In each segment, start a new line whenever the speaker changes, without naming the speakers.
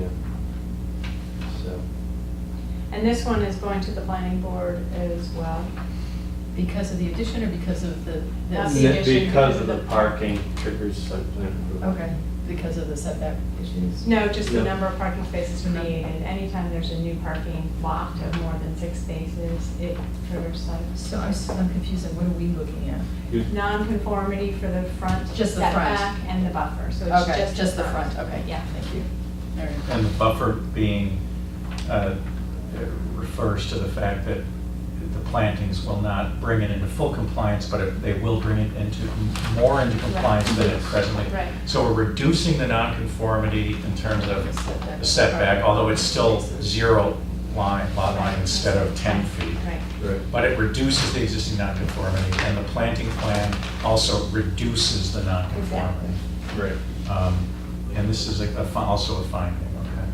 Yeah. So,
And this one is going to the planning board as well.
Because of the addition or because of the?
That's
this?
the
Ne-
addition
because of
because
the
of the-
parking triggers site plan approval.
Okay, because of the setback issues?
No, just the
No.
number of parking spaces created. Anytime there's a new parking lot of more than six spaces, it triggers site.
So I'm, s- I'm confused, on what are we looking at?
You-
Non-conformity for the front
Just the front.
setback and the buffer, so it's
Okay,
just.
just the front, okay, yeah, thank you. All right.
And the buffer being, uh, it refers to the fact that the plantings will not bring it into full compliance, but it- they will bring it into, more into compliance than it presently.
Right.
So we're reducing the nonconformity in terms of
Setback.
the setback, although it's still zero line, lot line instead of 10 feet.
Right.
Right.
But it reduces the existing nonconformity, and the planting plan also reduces the nonconformity.
Right.
Um, And this is a- a fi- also a finding, okay.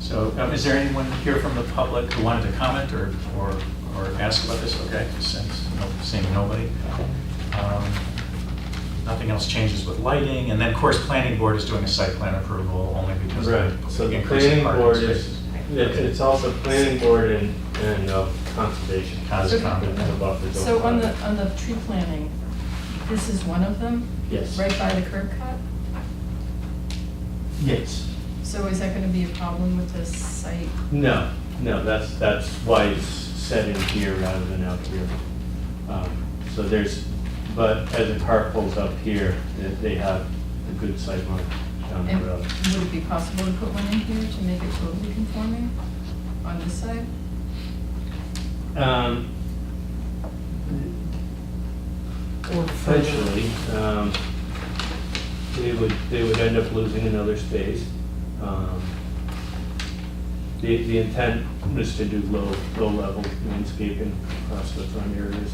So um, is there anyone here from the public who wanted to comment or, or or ask about this? Okay, since, no- seeing nobody. Um, Nothing else changes with lighting, and then, of course, planning board is doing a site plan approval only because
Right,
of
so
the
the
increase in
planning
parking
board is,
spaces.
it's it's also planning board and, and uh, conservation.
Conscom.
And the buffer zone.
So on the, on the tree planting, this is one of them,
Yes.
right by the curb cut?
Yes.
So is that gonna be a problem with the site?
No, no, that's, that's why it's set in here rather than out here. Um, So there's, but as the car pulls up here, it- they have a good sight line down the
And
road.
would it be possible to put one in here to make it totally conforming on this side?
Um,
Or further?
Potentially, um, they would, they would end up losing another space. Um, The, the intent was to do low, low-level landscaping across the front areas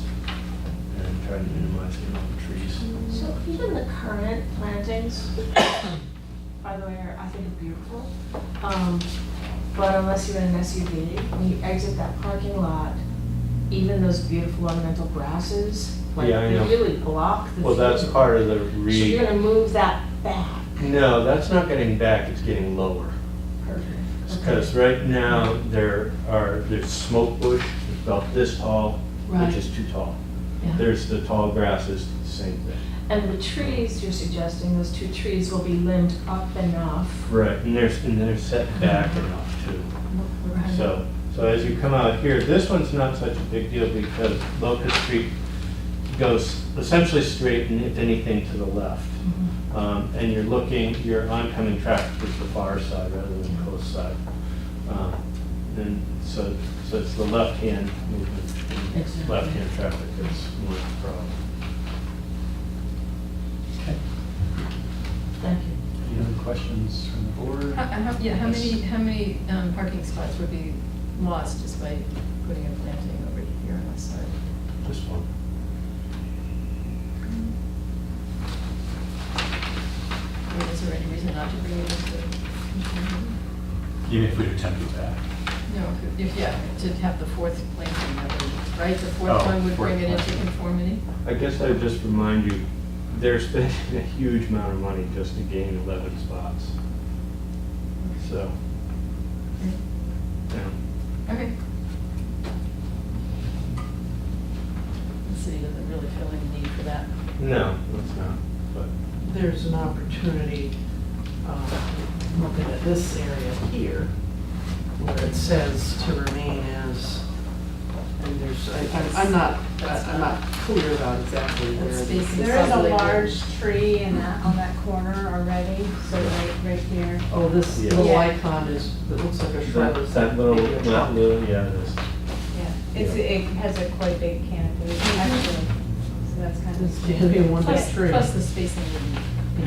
and try to minimize the amount of trees.
So even the current plantings, by the way, are- I think are beautiful. Um, But unless you're in an SUV, when you exit that parking lot, even those beautiful ornamental grasses, like
Yeah, I
they
know.
really block the view.
Well, that's part of the
So
re.
you're gonna move that back.
No, that's not getting back, it's getting lower. Because right now, there are, there's smoke bush, it's about this tall, which
Right.
is too tall.
Yeah.
There's the tall grasses, same thing.
And the trees you're suggesting, those two trees will be limbed up enough.
Right. And there's, and they're set back enough too. So, so as you come out here, this one's not such a big deal because Locust Street goes essentially straight and if anything to the left. Um, And you're looking, your oncoming traffic is the far side rather than close side. Um, And so, so it's the left-hand movement, and
Exactly.
left-hand traffic that's more the problem.
Okay.
Thank you. Uh-uh.
Any other questions from the board?
How- how- Yeah, how
Yes.
many, how many um, parking spots would be lost just by putting a planting over here on this side?
This one.
I mean, is there any reason not to bring it into? conformity?
Even if we do 10 feet back.
No, if, yeah, to have the fourth planting, that would- right, the fourth
Oh,
one would
fourth
bring it into
planting.
conformity?
I guess I would just remind you, they're spending a huge amount of money just to gain 11 spots. So, yeah.
Okay. The city doesn't really feel any need for that.
no, it's not, but.
there's an opportunity, um, looking at this area here, where it says to remain as, and there's, I- I'm- I'm not, I- I'm not clear about exactly where.
That's
the-
space.
There is a
Probably would.
large tree in that, on that corner already, so right, right here.
Oh, this
Yeah.
little
Yeah.
icon is, it looks like a shrub.
That
Is
that little,
maybe a
that
trunk?
little, yeah, it is.
Yeah. It's,
Yeah.
it has a quite big canopy,
Mm-hmm.
actually, so that's kind of.
It's gonna be one big
Plus,
tree.
plus the spacing wouldn't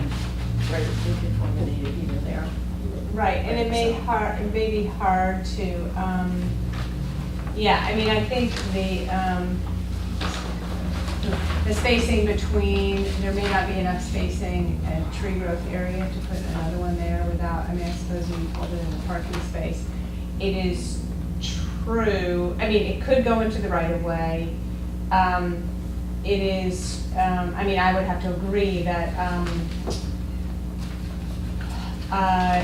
be right in conformity either there.
Right, and it may
So-
hard, it may be hard to, um, yeah, I mean, I think the, um, the spacing between, there may not be enough spacing and tree growth area to put another one there without, I mean, I suppose you hold it in the parking space. It is true, I mean, it could go into the right of way. Um, it is, um, I mean, I would have to agree that, um, uh,